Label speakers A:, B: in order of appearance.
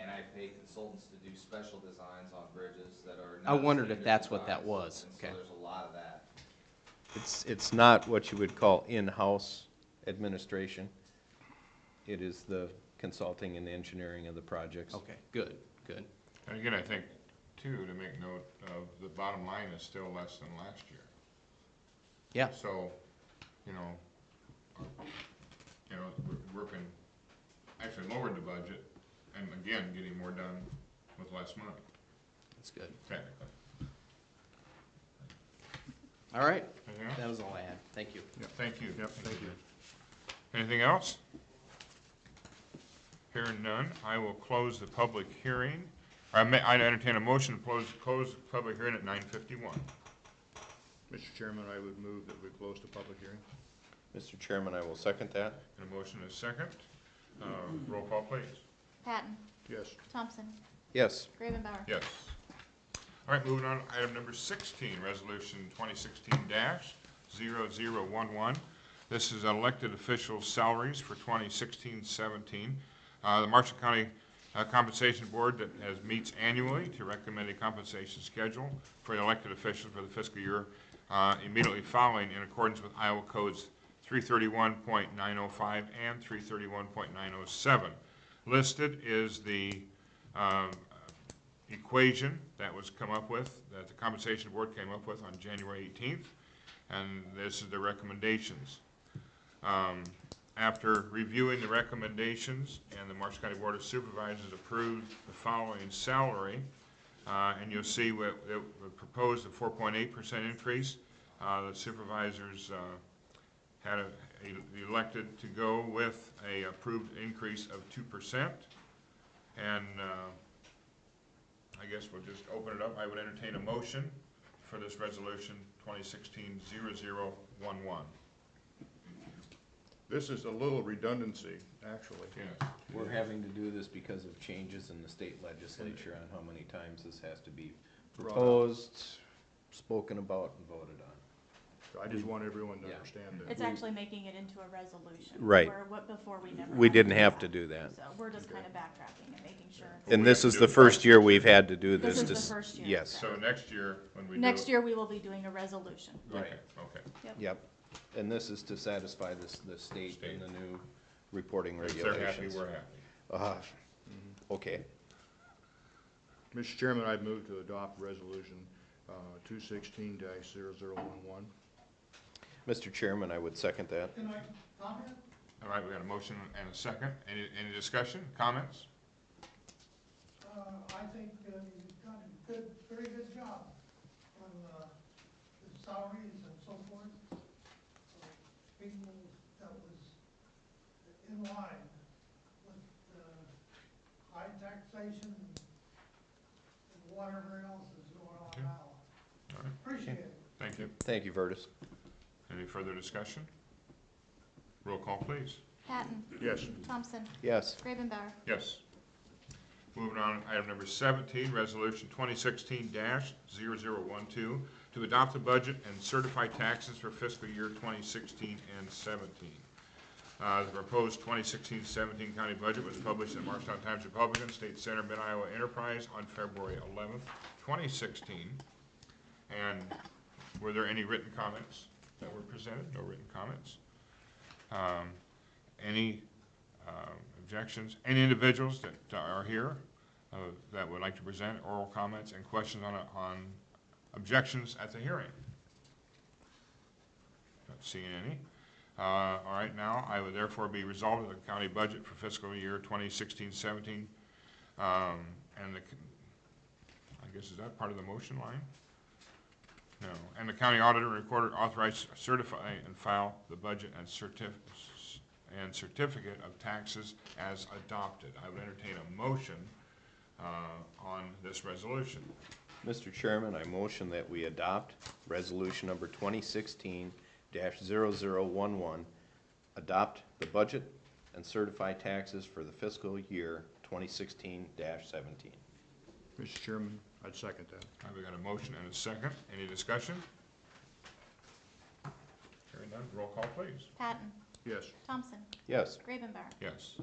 A: and I pay consultants to do special designs on bridges that are.
B: I
A: not
B: wondered if
A: standard
B: that's what that
A: designs,
B: was.
A: and
B: Okay.
A: So there's a lot of that.
C: It's, it's not what you would call in-house administration. It is the consulting and engineering of the projects.
B: Okay, good, good.
D: And again, I think, too, to make note of, the bottom line is still less than last year.
B: Yeah,
D: So, you know, you know, we're working, actually lowered the budget, and again, getting more done with less money,
B: that's good.
D: technically.
B: All right,
D: Anything else?
B: that was all I had. Thank you.
D: Thank you.
E: Yep, thank you.
D: Anything else? Hearing none, I will close the public hearing. I may, I entertain a motion to close, close the public hearing at nine fifty-one.
E: Mr. Chairman, I would move that we close the public hearing.
C: Mr. Chairman, I will second that.
D: And a motion is second. Uh, roll call, please.
F: Patton,
E: Yes.
F: Thompson,
C: Yes,
F: Gravenbauer.
D: Yes. All right, moving on, item number sixteen, resolution twenty sixteen 11 This is elected officials' salaries for 2016-17. Uh, the Marshall County uh, Compensation Board that has, meets annually to recommend a compensation schedule for the elected officials for the fiscal year, uh, immediately following in accordance with Iowa codes three thirty-one point nine oh five and three thirty-one point nine oh seven. Listed is the, um, equation that was come up with, that the compensation board came up with on January 18th, and this is the recommendations. Um, After reviewing the recommendations, and the Marshall County Board of Supervisors approved the following salary, uh, and you'll see what, it proposed a 4.8% increase. Uh, The supervisors uh, had a- e-, elected to go with a approved increase of 2%. And uh, I guess we'll just open it up. I would entertain a motion for this resolution 2016-0011.
E: This is a little redundancy, actually.
D: Yes.
C: we're having to do this because of changes in the state legislature on how many times this has to be
E: Brought up.
C: proposed, spoken about, and voted on.
E: So I just want everyone to
C: Yeah.
E: understand that.
F: It's actually making it into a resolution.
C: Right.
F: Where, what, before we never.
C: We
F: had
C: didn't
F: do
C: have to do that.
F: So we're just kind of backtracking and making sure.
C: And this is the first year we've had to do
F: This
C: this.
F: is the
C: Just-
F: first year.
C: Yes,
D: So next year, when we do.
F: Next year, we will be doing a resolution.
D: Okay,
C: Right.
D: okay.
C: yep. And this is to satisfy this, the state and the new reporting
D: If they're happy,
C: regulations.
D: we're happy.
C: Ah, Okay.
E: Mr. Chairman, I move to adopt resolution, uh, two sixteen dash zero zero one one.
C: Mr. Chairman, I would second that.
D: All right, we got a motion and a second. Any, any discussion, comments?
G: Uh, I think uh, you've done a good, very good job on uh, the salaries and so forth. So, People that was in line with uh, high taxation and whatever else is going on
D: Okay. All
G: now.
D: right.
G: Appreciate it.
D: Thank you.
C: Thank you, Vertus.
D: Any further discussion? Roll call, please.
F: Patton,
E: Yes.
F: Thompson,
C: Yes.
F: Gravenbauer.
D: Yes. Moving on, item number seventeen, resolution twenty sixteen 12 to adopt the budget and certify taxes for fiscal year twenty sixteen and seventeen. Uh, the proposed 2016-17 county budget was published in Marshtown Times Republican, State Center, Mid-Iowa Enterprise on February eleventh, twenty sixteen. And were there any written comments that were presented? No written comments? Um, any um, objections, any individuals that are here uh, that would like to present oral comments and questions on, on objections at the hearing? Not seeing any. Uh, All right, now, I would therefore be resolved that the county budget for fiscal year 2016-17, um, and the, I guess, is that part of the motion line? No, and the county auditor and recorder authorize, certify, and file the budget and certif, and certificate of taxes as adopted. I would entertain a motion uh, on this resolution.
C: Mr. Chairman, I motion that we adopt resolution number twenty sixteen 11 adopt the budget and certify taxes for the fiscal year twenty sixteen seventeen.
E: Mr. Chairman, I'd second that.
D: All right, we got a motion and a second. Any discussion? Hearing none, roll call, please.
F: Patton,
E: Yes.
F: Thompson,
C: Yes.
F: Gravenbauer.
D: Yes.